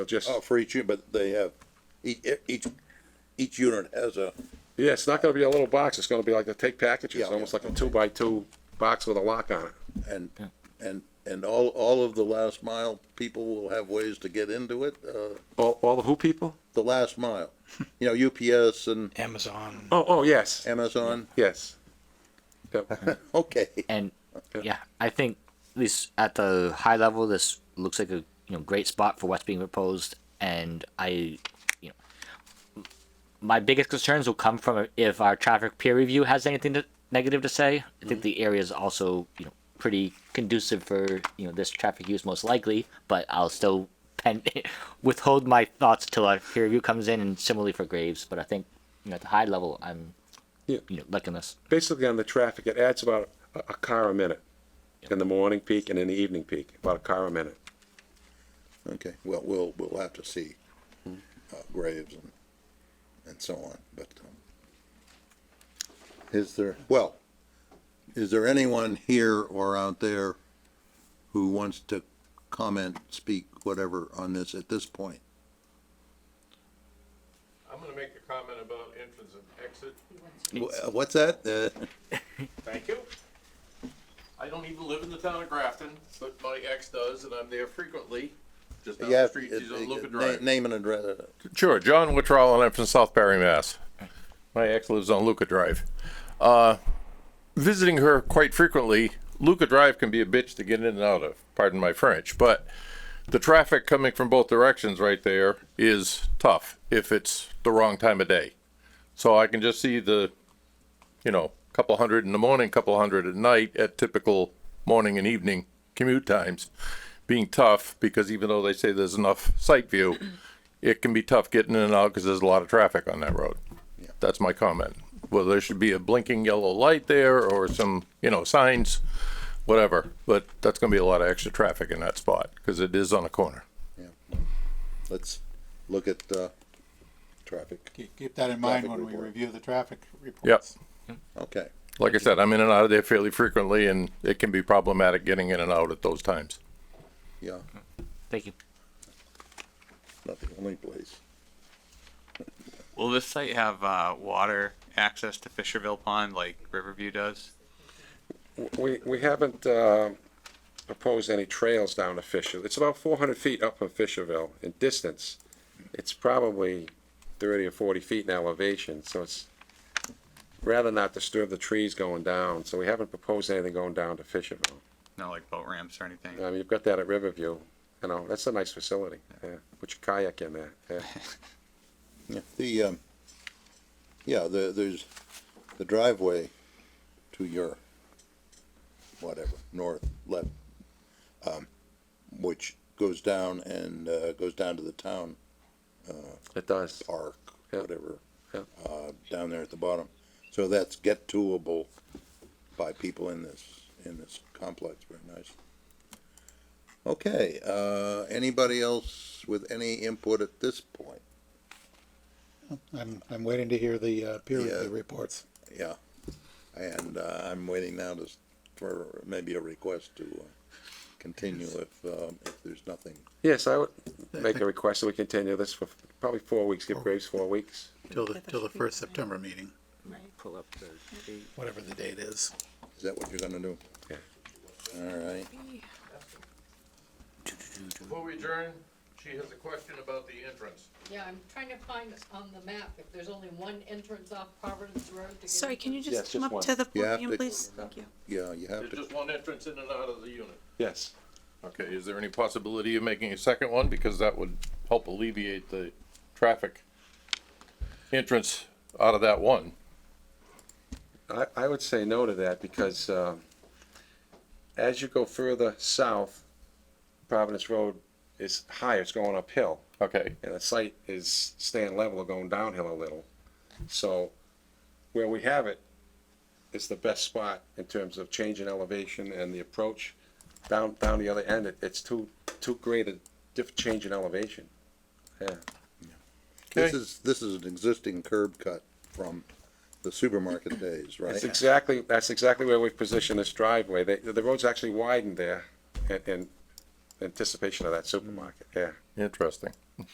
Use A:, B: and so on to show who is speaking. A: Just,
B: Oh, for each, unit, but they have, each, each, each unit has a,
A: yeah, it's not gonna be a little box, it's gonna be like the take packages,
B: Yeah,
A: almost
B: yeah,
A: like a two by two box with a lock on it.
B: and, and, and all, all of the last mile people will have ways to get into it, uh,
A: All, all the who people?
B: the last mile. You know, UPS and
C: Amazon.
A: Oh, oh, yes,
B: Amazon,
A: yes. Yep.
B: okay.
D: And yeah, I think at least at the high level, this looks like a you know great spot for what's being proposed. And I, you know, my biggest concerns will come from if our traffic peer review has anything to, negative to say. I think the area is also you know pretty conducive for you know this traffic use most likely. But I'll still pen, withhold my thoughts till our peer review comes in, and similarly for Graves. But I think you know at the high level, I'm
A: Yeah.
D: you know liking this.
A: Basically on the traffic, it adds about a, a car a minute in the morning peak and in the evening peak, about a car a minute.
B: Okay, well, we'll, we'll have to see, uh, Graves and, and so on, but, um, is there, well, is there anyone here or out there who wants to comment, speak, whatever, on this at this point?
E: I'm gonna make a comment about entrance and exit.
B: Wh- What's that? Uh,
E: Thank you. I don't even live in the town of Grafton, but my ex does, and I'm there frequently. Just down
B: Yeah,
E: the street,
B: it-
E: she's
B: it-
E: on Luca
B: na-
E: Drive.
B: Name and address. uh,
E: Sure, John Wittrell, and I'm from South Barry, Mass. My ex lives on Luca Drive. Uh, visiting her quite frequently, Luca Drive can be a bitch to get in and out of, pardon my French, but the traffic coming from both directions right there is tough if it's the wrong time of day. So I can just see the, you know, couple hundred in the morning, couple hundred at night at typical morning and evening commute times being tough because even though they say there's enough sight view, it can be tough getting in and out because there's a lot of traffic on that road. That's my comment. Well, there should be a blinking yellow light there or some, you know, signs, whatever. But that's going to be a lot of extra traffic in that spot because it is on a corner.
B: Let's look at, uh, traffic.
F: Keep, keep that in mind
B: Traffic
F: when we
B: report.
F: review the traffic
E: Yep.
F: reports.
B: Okay,
E: Like I said, I'm in and out of there fairly frequently and it can be problematic getting in and out at those times.
B: yeah,
D: Thank you.
B: not the only place.
G: Will this site have uh, water access to Fisherville Pond like Riverview does?
A: We, we haven't, um, proposed any trails down to Fisher. It's about four hundred feet up from Fisherville in distance. It's probably thirty or forty feet in elevation, so it's rather not disturb the trees going down, so we haven't proposed anything going down to Fisherville.
G: No, like boat ramps or anything.
A: I mean, you've got that at Riverview, you know, that's a nice facility, yeah, put your kayak in there, yeah.
B: Yeah, The, um, yeah, the, there's the driveway to your, whatever, north, left, um, which goes down and, uh, goes down to the town
A: It does,
B: park,
A: Yeah.
B: whatever,
A: Yeah.
B: uh, down there at the bottom. So that's get toable by people in this, in this complex, very nice. Okay, uh, anybody else with any input at this point?
F: I'm, I'm waiting to hear the uh, peer
B: Yeah.
F: review reports.
B: Yeah, and, uh, I'm waiting now to, s- for maybe a request to uh, continue if, um, if there's nothing.
A: yes, I would make a request that we continue this for probably four weeks, give Graves four weeks.
F: Till the, till the first September meeting,
D: Pull up the date.
F: whatever the date is.
B: Is that what you're gonna do?
A: Yeah.
B: All right,
E: Before we adjourn, she has a question about the entrance.
H: Yeah, I'm trying to find on the map if there's only one entrance off Providence Road to get.
I: Sorry,
H: into
I: can you
A: Yes,
I: just come
A: just
I: up
A: one.
I: to the
B: You have
I: podium,
B: to-
I: please? Thank you.
B: yeah, you have
E: There's
B: to,
E: just one entrance in and out of the unit.
A: Yes.
E: Okay, is there any possibility of making a second one? Because that would help alleviate the traffic entrance out of that one.
A: I, I would say no to that because, um, as you go further south, Providence Road is higher, it's going uphill.
E: Okay,
A: and the site is staying level or going downhill a little. So where we have it is the best spot in terms of change in elevation and the approach. Down, down the other end, it, it's too, too great a diff, change in elevation. Yeah,
B: this
E: Okay.
B: is, this is an existing curb cut from the supermarket days, right?
A: that's exactly, that's exactly where we've positioned this driveway. They, the road's actually widened there in, in anticipation of that supermarket, yeah.
E: interesting.